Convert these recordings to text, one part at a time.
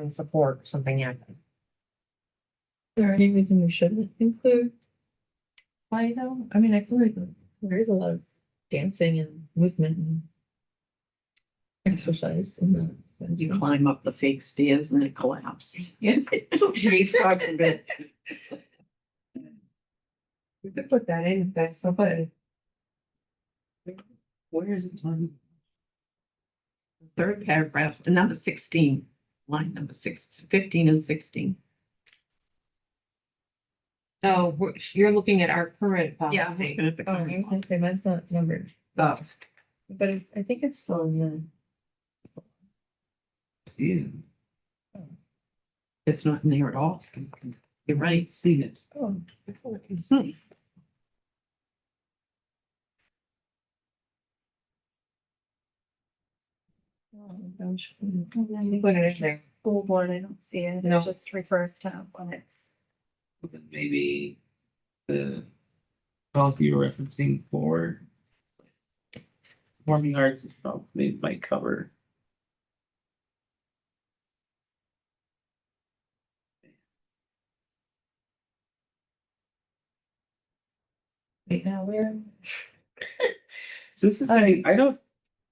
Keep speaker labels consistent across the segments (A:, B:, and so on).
A: and support something happening.
B: there any reason we shouldn't include play though? I mean, I feel like there is a lot of dancing and movement and exercise in the. and
C: You
B: you-
C: climb up the fake stairs and it collapses.
B: Yeah.
C: She's talking about.
B: We could put that in, if that's so bad.
C: Where is it on? Third paragraph, number sixteen, line number six, fifteen and sixteen.
A: So Oh, we're- you're looking at our current policy.
C: Looking at the
B: Oh,
C: current one.
B: okay, mine's not numbered,
C: Oh,
B: but it- I think it's still in the.
C: yeah. It's not in there at all. You're right, seen it.
B: Oh,
C: Hmm.
B: Put it in there.
D: School board, I don't see it.
B: No.
D: It just refers to when it's.
E: then maybe the policy you're referencing for performing arts is probably maybe might cover.
B: Right now, we're.
E: So this is saying, I don't,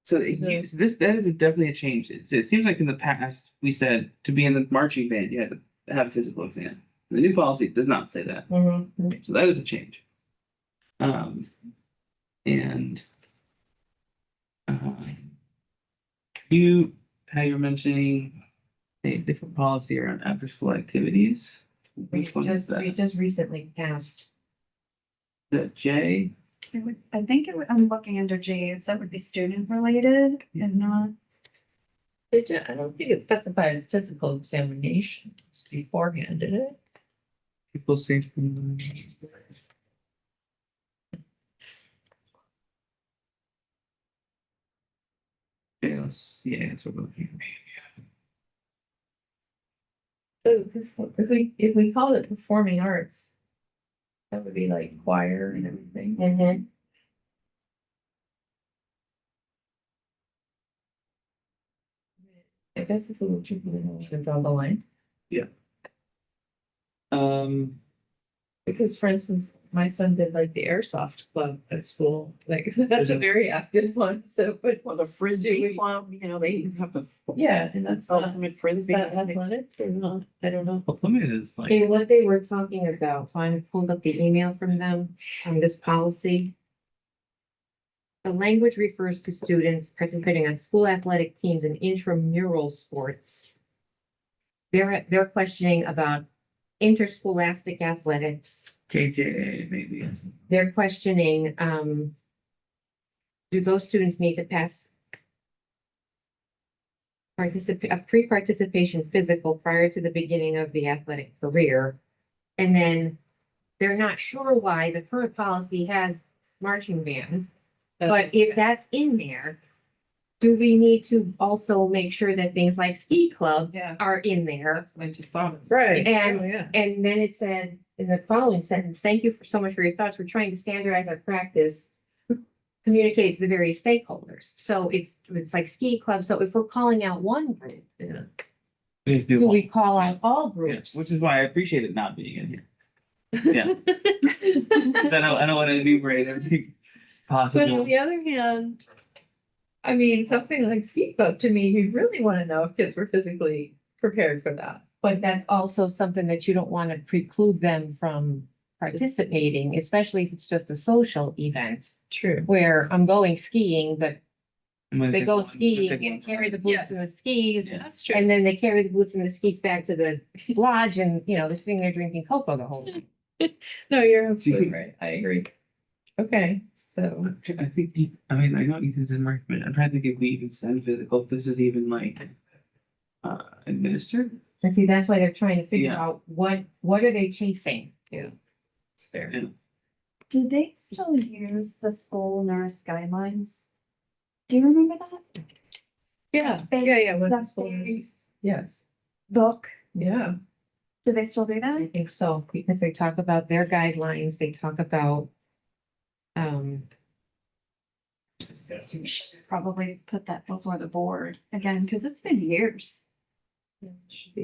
E: so it
B: Uh, Yeah.
E: use, this, that is definitely a change. It, it seems like in the past, we said to be in the marching band, you had to have a physical exam. The new policy does not say that.
B: Mm-hmm.
E: So that is a change. Um, and um, you, how you're mentioning a different policy around after school activities.
B: We
E: Which one is
B: just, we
E: that?
B: just recently passed.
E: That J?
D: It would, I think it would, I'm looking under J's. That would be student related and not.
B: They did, I don't think it specified a physical examination beforehand, did it?
E: People say from the. Yes, yeah, that's what we're looking
B: So perfor- if we, if we called it performing arts, that would be like choir and everything.
D: Mm-hmm.
A: Mhm.
B: I guess it's a little tricky to know where to draw the line,
E: at. Um,
B: because for instance, my son did like the airsoft club at school, like that's a very active one, so, but
C: Well, the
B: Do
C: frisbee,
B: we-
C: well, you know, they have a
B: yeah, and that's not,
C: ultimate
B: is
C: frisbee.
B: that athletic or not? I don't know.
E: well, limited is like,
A: And what they were talking about, so I pulled up the email from them on this policy. The language refers to students participating on school athletic teams and intramural sports. They're, they're questioning about interscholastic athletics.
E: KJ maybe.
A: they're questioning, um, do those students need to pass participate, a pre-participation physical prior to the beginning of the athletic career? And then they're not sure why the current policy has marching band, but if that's in there, do we need to also make sure that things like ski club
C: Yeah.
A: are in there?
C: I just thought of.
B: Right.
A: And-
B: oh, yeah.
A: And then it said, in the following sentence, thank you for so much for your thoughts. We're trying to standardize our practice. Communicate to the various stakeholders. So it's, it's like ski club. So if we're calling out one group,
B: Yeah.
A: do we call out all
E: Yes,
A: groups?
E: which is why I appreciate it not being in here. Yeah. 'Cause I don't, I don't want to enumerate everything
B: But on
E: possible.
B: the other hand, I mean, something like ski club, to me, you really wanna know if kids were physically prepared for that.
A: But that's also something that you don't want to preclude them from participating, especially if it's just a social event
B: True.
A: where I'm going skiing, but
E: I'm gonna
A: they
E: take
A: go
E: one- I'm gonna take
A: skiing
E: one
A: and carry
E: ride.
A: the boots and the skis
E: Yeah.
B: That's
A: And then they carry the boots and the skis back to the lodge and, you know, they're sitting there drinking cocoa the whole night.
B: No, you're absolutely right. I agree. Okay, so,
E: I'm tr- I think, Eth- I mean, I know Ethan's in work, but I'm trying to think if we even send physical, if this is even like uh, administered.
A: And see, that's why they're trying to figure
E: Yeah.
A: out what, what are they chasing?
B: it's fair.
D: Do they still use the school nurse guidelines? Do you remember that
B: Yeah,
D: They-
B: yeah, yeah. with the
D: that's
B: school
D: very-
B: nurse. Yes,
D: book?
B: yeah.
D: Do they still do
A: I
D: that?
A: think so, because they talk about their guidelines, they talk about um,
D: We should Probably put that before the board again, because it's been years.
B: Yeah, it should be.